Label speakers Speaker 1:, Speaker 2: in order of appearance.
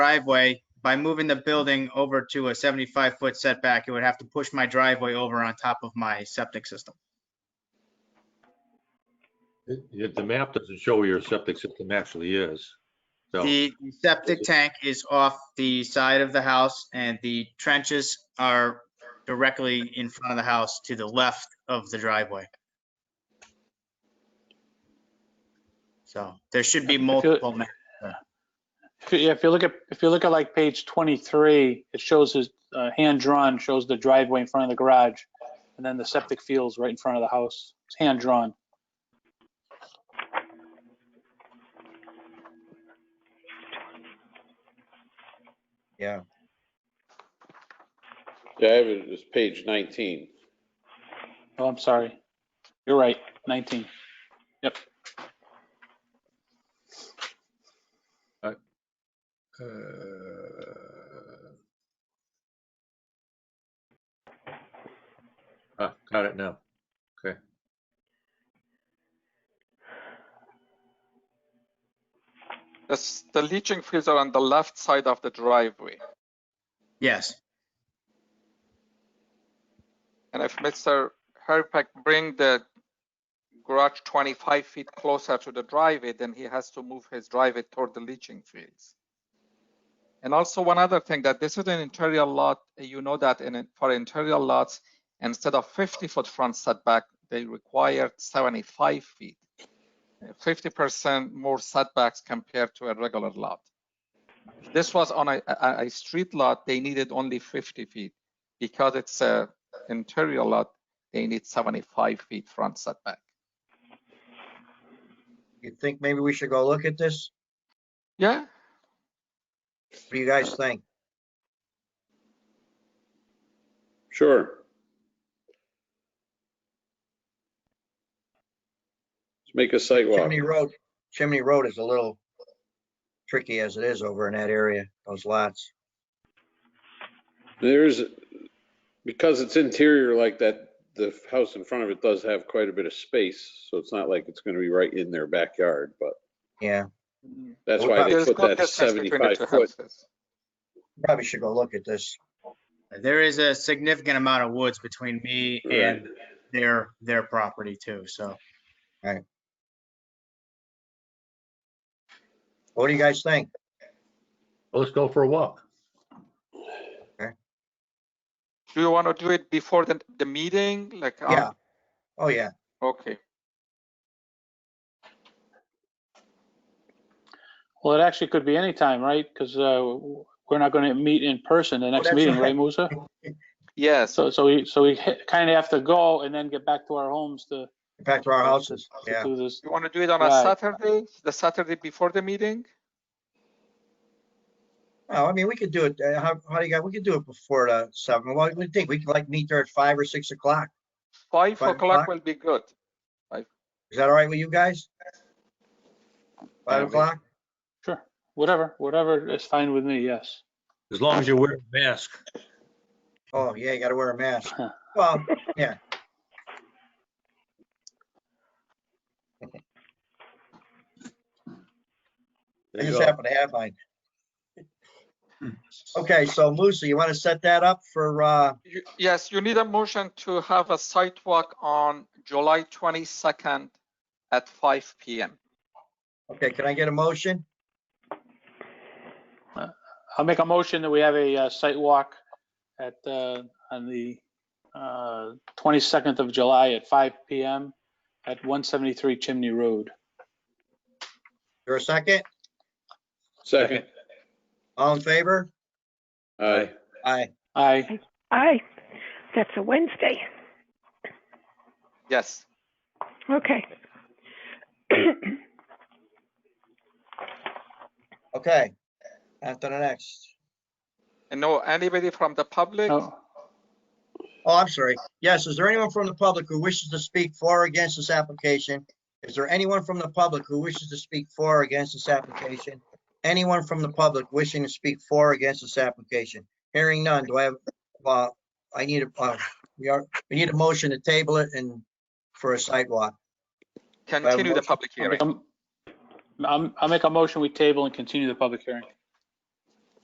Speaker 1: driveway, by moving the building over to a 75-foot setback, it would have to push my driveway over on top of my septic system.
Speaker 2: It- it- The map doesn't show where your septic system actually is. So,
Speaker 1: The septic tank is off the side of the house and the trenches are directly in front of the house to the left of the driveway. So there should be
Speaker 3: If you-
Speaker 1: multiple, ma-
Speaker 3: If you- yeah, if you look at, if you look at like page 23, it shows his, uh, hand-drawn, shows the driveway in front of the garage, and then the septic field's right in front of the house. It's hand-drawn.
Speaker 4: Yeah, I have it as page 19.
Speaker 3: Oh, I'm sorry. You're right, 19.
Speaker 2: uh, ah, got it now.
Speaker 5: That's the leaching fields are on the left side of the driveway.
Speaker 1: yes.
Speaker 5: And if Mr. Herpak bring the garage 25 feet closer to the driveway, then he has to move his driveway toward the leaching fields. And also one other thing, that this is an interior lot, you know that in, for interior lots, instead of 50 foot front setback, they require 75 feet. 50% more setbacks compared to a regular lot. If This was on a, a, a street lot, they needed only 50 feet because it's a interior lot, they need 75 feet front setback.
Speaker 6: You think maybe we should go look at this?
Speaker 5: Yeah,
Speaker 6: What do you guys think?
Speaker 4: Sure. Let's make a sidewalk.
Speaker 6: Chimney Road, Chimney Road is a little tricky as it is over in that area, those lots.
Speaker 4: There's, because it's interior like that, the house in front of it does have quite a bit of space, so it's not like it's going to be right in their backyard, but
Speaker 6: Yeah,
Speaker 4: that's
Speaker 6: What
Speaker 4: why
Speaker 6: about-
Speaker 4: they
Speaker 5: there's
Speaker 4: put
Speaker 5: good
Speaker 4: that
Speaker 5: distance between the
Speaker 4: 75
Speaker 5: two
Speaker 4: foot.
Speaker 5: houses.
Speaker 6: probably should go look at this.
Speaker 1: There is a significant amount of woods between me and their, their property too, so.
Speaker 6: What do you guys think?
Speaker 2: Well, Let's go for a walk.
Speaker 5: Do you want to do it before the, the meeting? Like, um,
Speaker 6: Yeah. Oh, yeah.
Speaker 5: okay.
Speaker 3: Well, it actually could be any time, right? Because we're not going to meet in person the next
Speaker 6: that's
Speaker 3: meeting,
Speaker 6: right.
Speaker 3: right, Musa?
Speaker 5: Yes,
Speaker 3: So, so we, so we kind of have to go and then get back to our homes to
Speaker 6: Back to our houses.
Speaker 3: to
Speaker 6: Yeah,
Speaker 3: do this.
Speaker 5: you want to do it on a
Speaker 3: Right.
Speaker 5: Saturday, the Saturday before the meeting?
Speaker 6: no, Oh, I mean, we could do it, uh, how, how do you guys, we could do it before the seven, what do you think? We could like meet there at five or six o'clock.
Speaker 5: Five
Speaker 6: Five
Speaker 5: o'clock
Speaker 6: o'clock?
Speaker 5: will be good.
Speaker 6: Is that all right with you guys?
Speaker 5: Yeah,
Speaker 6: Five
Speaker 5: we-
Speaker 6: o'clock?
Speaker 3: Sure, whatever, whatever is fine with me, yes.
Speaker 2: As long as you wear a mask.
Speaker 6: Oh, yeah, you gotta wear a mask. Well, yeah. I
Speaker 2: There you
Speaker 6: just
Speaker 2: go.
Speaker 6: happen to have mine. Okay, so Musa, you want to set that up for, uh,
Speaker 5: You- Yes, you need a motion to have a sidewalk on July 22nd at 5 PM.
Speaker 6: okay, can I get a motion?
Speaker 3: I'll make a motion that we have a uh, site walk at, uh, on the uh, 22nd of July at 5 PM at 173 Chimney Road.
Speaker 6: Or a second?
Speaker 4: Second, Uh,
Speaker 6: All in favor?
Speaker 4: aye.
Speaker 6: Aye.
Speaker 3: Aye,
Speaker 7: Aye, that's a Wednesday.
Speaker 5: Yes,
Speaker 7: Okay.
Speaker 6: Okay. After the next.
Speaker 5: and no, anybody from the public?
Speaker 3: oh,
Speaker 6: Oh, I'm sorry. Yes, is there anyone from the public who wishes to speak for or against this application? Is there anyone from the public who wishes to speak for or against this application? Anyone from the public wishing to speak for or against this application? Hearing none, do I have, uh, I need a, uh, we are, we need a motion to table it and for a sidewalk.
Speaker 5: Continue the
Speaker 6: motion.
Speaker 5: public
Speaker 3: I'll
Speaker 5: hearing.
Speaker 3: make a- I'm- I'll make a motion, we table and continue the public hearing.